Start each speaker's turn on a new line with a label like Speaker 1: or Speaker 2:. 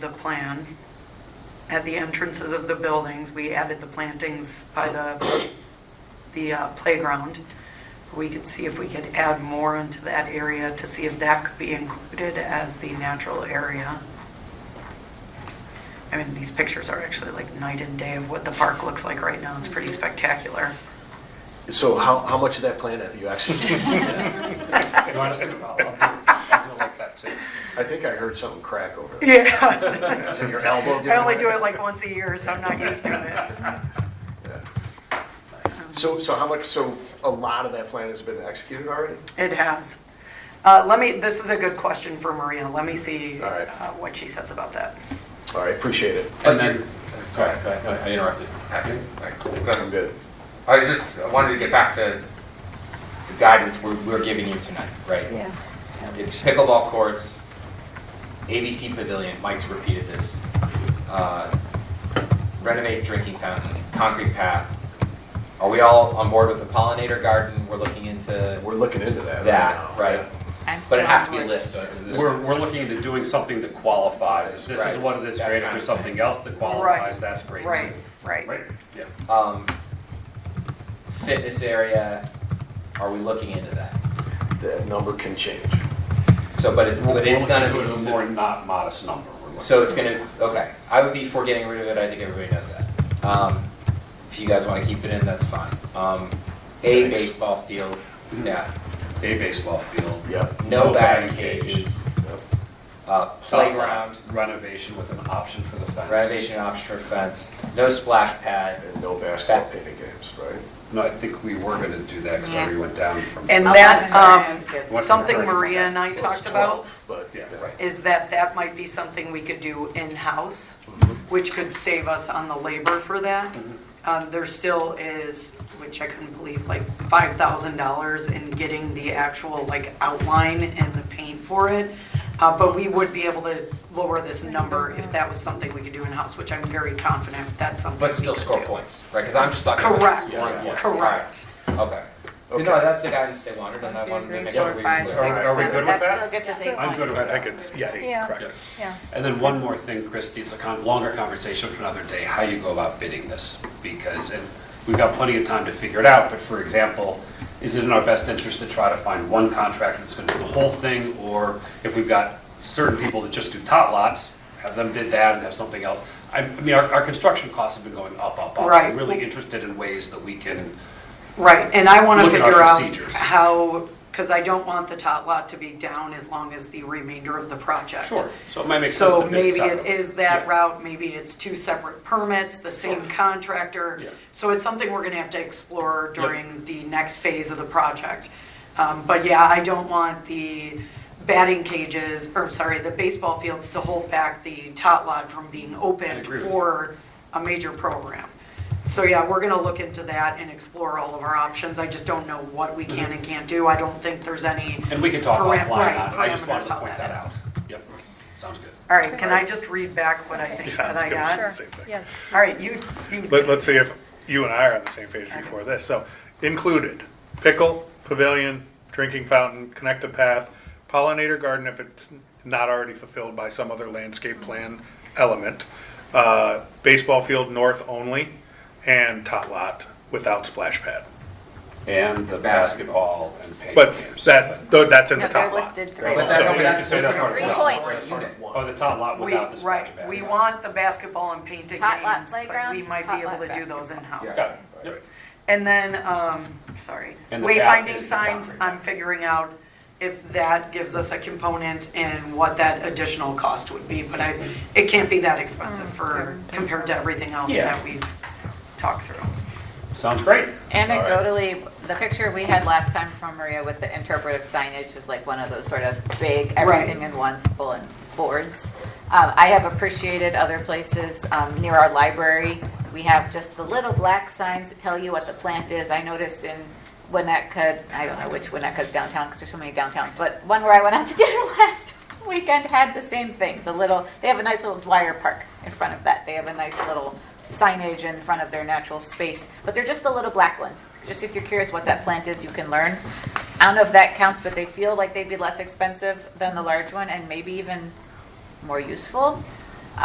Speaker 1: the plan. At the entrances of the buildings, we added the plantings by the, the uh, playground. We could see if we could add more into that area to see if that could be included as the natural area. I mean, these pictures are actually like night and day of what the park looks like right now. It's pretty spectacular.
Speaker 2: So how, how much of that plan have you actually?
Speaker 3: You want us to- I'll- I'll do- I'll do it like that too.
Speaker 2: I think I heard something crack over there.
Speaker 1: Yeah.
Speaker 2: Is it your elbow?
Speaker 1: I only do it like once a year, so I'm not used to
Speaker 2: So, so how much, so a lot of that plan has been executed already?
Speaker 1: it. It has. Uh, let me, this is a good question for Maria. Let me see
Speaker 2: All right.
Speaker 1: uh, what she says about that.
Speaker 2: All right, appreciate it.
Speaker 4: And then, sorry, I I interrupted.
Speaker 5: Happy?
Speaker 2: I'm good.
Speaker 5: I was just, I wanted to get back to the guidance we're, we're giving you tonight, right?
Speaker 6: Yeah.
Speaker 5: It's pickleball courts, ABC Pavilion, Mike's repeated this. uh, Renovate drinking fountain, concrete path. Are we all on board with the pollinator garden? We're looking into
Speaker 2: We're looking into that.
Speaker 5: that,
Speaker 2: now.
Speaker 5: right? But
Speaker 6: I'm
Speaker 5: it
Speaker 6: still
Speaker 5: has
Speaker 6: on
Speaker 5: to be a
Speaker 6: board.
Speaker 5: list.
Speaker 4: We're, we're looking into doing something that qualifies. If this is
Speaker 5: Right.
Speaker 4: one of this
Speaker 5: That's
Speaker 4: great, if
Speaker 5: kind
Speaker 4: there's
Speaker 5: of thing.
Speaker 4: something else that qualifies, that's great. too.
Speaker 1: Right, right.
Speaker 4: Right, yeah.
Speaker 5: Um, Fitness area, are we looking into that?
Speaker 2: That number can change.
Speaker 5: So, but it's, but it's gonna be.
Speaker 4: We're looking into it in a more not modest number. We're looking-
Speaker 5: So it's gonna, okay, I would be for getting rid of it, I think everybody knows that. Um, if you guys wanna keep it in, that's fine. Um, a
Speaker 4: Thanks.
Speaker 5: baseball field, yeah,
Speaker 4: A baseball field.
Speaker 2: Yep.
Speaker 5: Mm-hmm. no batting cages,
Speaker 2: Yep.
Speaker 5: uh, playground,
Speaker 4: Renovation with an option for the fence.
Speaker 5: renovation option for fence, no splash pad.
Speaker 2: And no basketball painting games, right?
Speaker 4: No, I think we were gonna do that because I
Speaker 6: Yeah.
Speaker 4: already went down from.
Speaker 1: And
Speaker 6: I'll
Speaker 1: that,
Speaker 6: let him know.
Speaker 1: um, something Maria and I
Speaker 2: Well, it's
Speaker 1: talked about
Speaker 2: 12, But,
Speaker 4: Yeah,
Speaker 2: yeah.
Speaker 4: right.
Speaker 1: is that that might be something we could do in-house,
Speaker 4: Mm-hmm.
Speaker 1: which could save us on the labor for that. Um, There still is, which I couldn't believe, like $5,000 in getting the actual like outline and the paint for it. Uh, But we would be able to lower this number if that was something we could do in-house, which I'm very confident that's something.
Speaker 5: But
Speaker 1: we
Speaker 5: still
Speaker 1: could
Speaker 5: score
Speaker 1: do.
Speaker 5: points, right, cause I'm just talking about
Speaker 1: Correct,
Speaker 5: scoring points.
Speaker 1: correct.
Speaker 5: Okay, no,
Speaker 2: Okay.
Speaker 5: that's the guidance they wanted, and I
Speaker 6: One,
Speaker 5: wanted
Speaker 6: two,
Speaker 5: to
Speaker 6: three,
Speaker 5: make sure
Speaker 6: four,
Speaker 5: we.
Speaker 6: five,
Speaker 4: Are-
Speaker 6: six,
Speaker 4: are we
Speaker 6: seven.
Speaker 4: good with
Speaker 6: That
Speaker 4: that?
Speaker 6: still gets us eight
Speaker 7: I'm good
Speaker 6: points.
Speaker 7: with, I think it's, yeah, eight,
Speaker 6: Yeah.
Speaker 7: correct.
Speaker 6: Yeah.
Speaker 4: And then one more thing, Christie, it's a con- longer conversation for another day, how you go about bidding this, because, and we've got plenty of time to figure it out, but for example, is it in our best interest to try to find one contractor that's gonna do the whole thing, or if we've got certain people that just do tot lots, have them bid that and have something else? I, I mean, our, our construction costs have been going up, up, up.
Speaker 1: Right.
Speaker 4: I'm really interested in ways that we can,
Speaker 1: Right, and I want to
Speaker 4: Look at our
Speaker 1: figure out
Speaker 4: procedures.
Speaker 1: how, because I don't want the tot lot to be down as long as the remainder of the project.
Speaker 4: sure, so it might make sense
Speaker 1: So
Speaker 4: to bid it
Speaker 1: maybe it
Speaker 4: separately.
Speaker 1: is that
Speaker 4: Yeah.
Speaker 1: route, maybe it's two separate permits, the same contractor.
Speaker 4: Yeah.
Speaker 1: So it's something we're gonna have to explore during the next phase of the project. Um, But yeah, I don't want the batting cages, or sorry, the baseball fields to hold back the tot lot from being opened
Speaker 4: agree with you.
Speaker 1: for a major program. So yeah, we're gonna look into that and explore all of our options. I just don't know what we can and can't do. I don't think there's any.
Speaker 4: Mm-hmm. And we can talk
Speaker 1: param-
Speaker 4: offline
Speaker 1: right,
Speaker 4: on it, I just wanted
Speaker 1: parameters
Speaker 4: to
Speaker 1: how
Speaker 4: point that
Speaker 1: is.
Speaker 4: out. Yep, sounds good.
Speaker 1: All right, can I just read back what I think
Speaker 7: Yeah,
Speaker 1: that I
Speaker 7: I
Speaker 1: got?
Speaker 7: was
Speaker 6: Sure.
Speaker 7: gonna say the same thing.
Speaker 6: Yeah.
Speaker 1: All right, you, you,
Speaker 7: Let, let's see if you and I are on the same page before this. So included, pickle, pavilion, drinking fountain, connected path, pollinator garden if it's not already fulfilled by some other landscape plan element, uh, baseball field north only, and tot lot without splash pad.
Speaker 4: and the basketball and paint
Speaker 7: But
Speaker 4: games.
Speaker 7: that, though, that's in the
Speaker 6: No,
Speaker 7: top
Speaker 6: they're
Speaker 7: lot.
Speaker 6: listed three.
Speaker 4: But
Speaker 5: But that-
Speaker 4: So
Speaker 5: no,
Speaker 4: you
Speaker 5: but
Speaker 4: can
Speaker 5: that's
Speaker 4: say that part
Speaker 6: Three
Speaker 4: is
Speaker 5: different.
Speaker 6: points.
Speaker 4: Oh, the top lot
Speaker 1: we,
Speaker 4: without the splash
Speaker 1: right,
Speaker 4: pad.
Speaker 1: we want the basketball and painting
Speaker 6: Tot lot
Speaker 1: games, but we
Speaker 6: playgrounds,
Speaker 1: might
Speaker 6: tot
Speaker 1: be able
Speaker 6: lot
Speaker 1: to do those
Speaker 4: Got
Speaker 1: in-house.
Speaker 4: it. Yep.
Speaker 1: And then, um, sorry,
Speaker 4: And the back
Speaker 1: wayfinding
Speaker 4: is the
Speaker 1: signs,
Speaker 4: concrete.
Speaker 1: I'm figuring out if that gives us a component and what that additional cost would be, but I, it can't be that expensive for,
Speaker 6: Mm.
Speaker 1: compared to everything else
Speaker 4: Yeah.
Speaker 1: that we've talked through.
Speaker 4: Sounds great.
Speaker 6: Anecdotally, the picture we had last time from Maria with the interpretive signage is like one of those sort of big, everything in one bulletin boards. Um, I have appreciated other places um, near our library. We have just the little black signs that tell you what the plant is. I noticed in Winnetka, I don't know which Winnetka's downtown because there's so many downtowns, but one where I went out to dinner last weekend had the same thing. The little, they have a nice little Dwyer Park in front of that. They have a nice little signage in front of their natural space, but they're just the little black ones. Just if you're curious what that plant is, you can learn. I don't know if that counts, but they feel like they'd be less expensive than the large one and maybe even more useful.